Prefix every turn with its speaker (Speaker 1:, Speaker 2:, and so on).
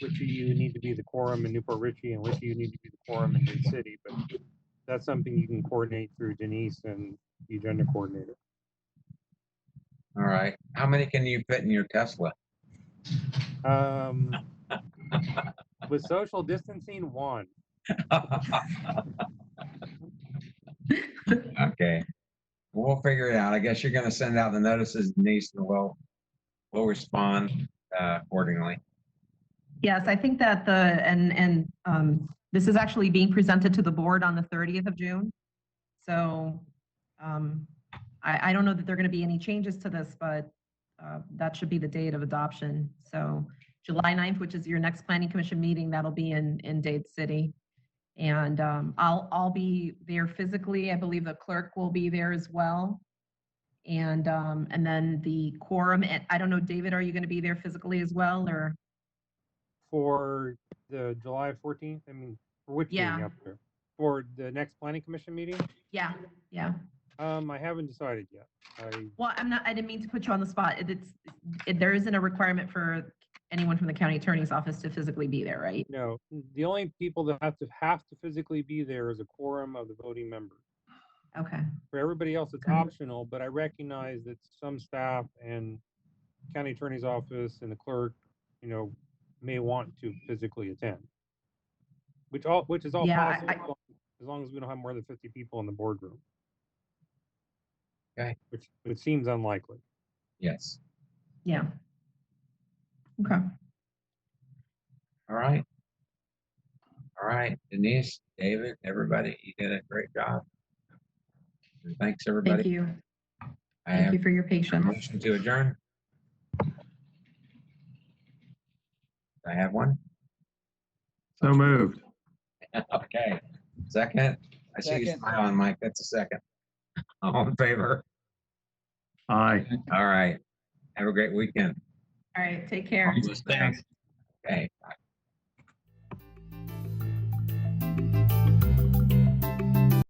Speaker 1: which of you need to be the quorum in Newport Richey and which of you need to be the quorum in Dade City, but that's something you can coordinate through Denise and the agenda coordinator.
Speaker 2: All right. How many can you fit in your Tesla?
Speaker 1: Um, with social distancing, one.
Speaker 2: Okay. We'll figure it out. I guess you're gonna send out the notices, Denise, and we'll, we'll respond uh, accordingly.
Speaker 3: Yes, I think that the, and, and um, this is actually being presented to the board on the 30th of June. So um, I, I don't know that there are going to be any changes to this, but uh, that should be the date of adoption. So July 9th, which is your next planning commission meeting, that'll be in, in Dade City. And um, I'll, I'll be there physically. I believe the clerk will be there as well. And, um, and then the quorum, and I don't know, David, are you going to be there physically as well, or?
Speaker 1: For the July fourteenth, I mean, for which meeting
Speaker 3: Yeah.
Speaker 1: up there? For the next planning commission meeting?
Speaker 3: Yeah, yeah.
Speaker 1: Um, I haven't decided yet. I,
Speaker 3: Well, I'm not, I didn't mean to put you on the spot. It- It's, it- there isn't a requirement for anyone from the county attorney's office to physically be there, right?
Speaker 1: no, the only people that have to, have to physically be there is a quorum of the voting members.
Speaker 3: Okay,
Speaker 1: For everybody else, it's
Speaker 3: Okay.
Speaker 1: optional, but I recognize that some staff and county attorney's office and the clerk, you know, may want to physically attend. Which all, which is all
Speaker 3: Yeah,
Speaker 1: possible,
Speaker 3: I-
Speaker 1: as long- as long as we don't have more than fifty people in the boardroom.
Speaker 2: Okay.
Speaker 1: Which, which seems unlikely.
Speaker 2: Yes.
Speaker 3: yeah. Okay,
Speaker 2: All right. All right, Denise, David, everybody, you did a great job. And Thanks,
Speaker 3: thank
Speaker 2: everybody.
Speaker 3: you.
Speaker 2: I
Speaker 3: Thank
Speaker 2: have
Speaker 3: you for your
Speaker 2: a
Speaker 3: patience.
Speaker 2: motion to adjourn. I have one.
Speaker 4: So moved.
Speaker 2: Okay, second. I see you
Speaker 5: Second.
Speaker 2: smiling, Mike. That's a second. All in favor?
Speaker 4: Aye.
Speaker 2: All right. Have a great weekend.
Speaker 3: All right, take care.
Speaker 2: Thanks. Okay.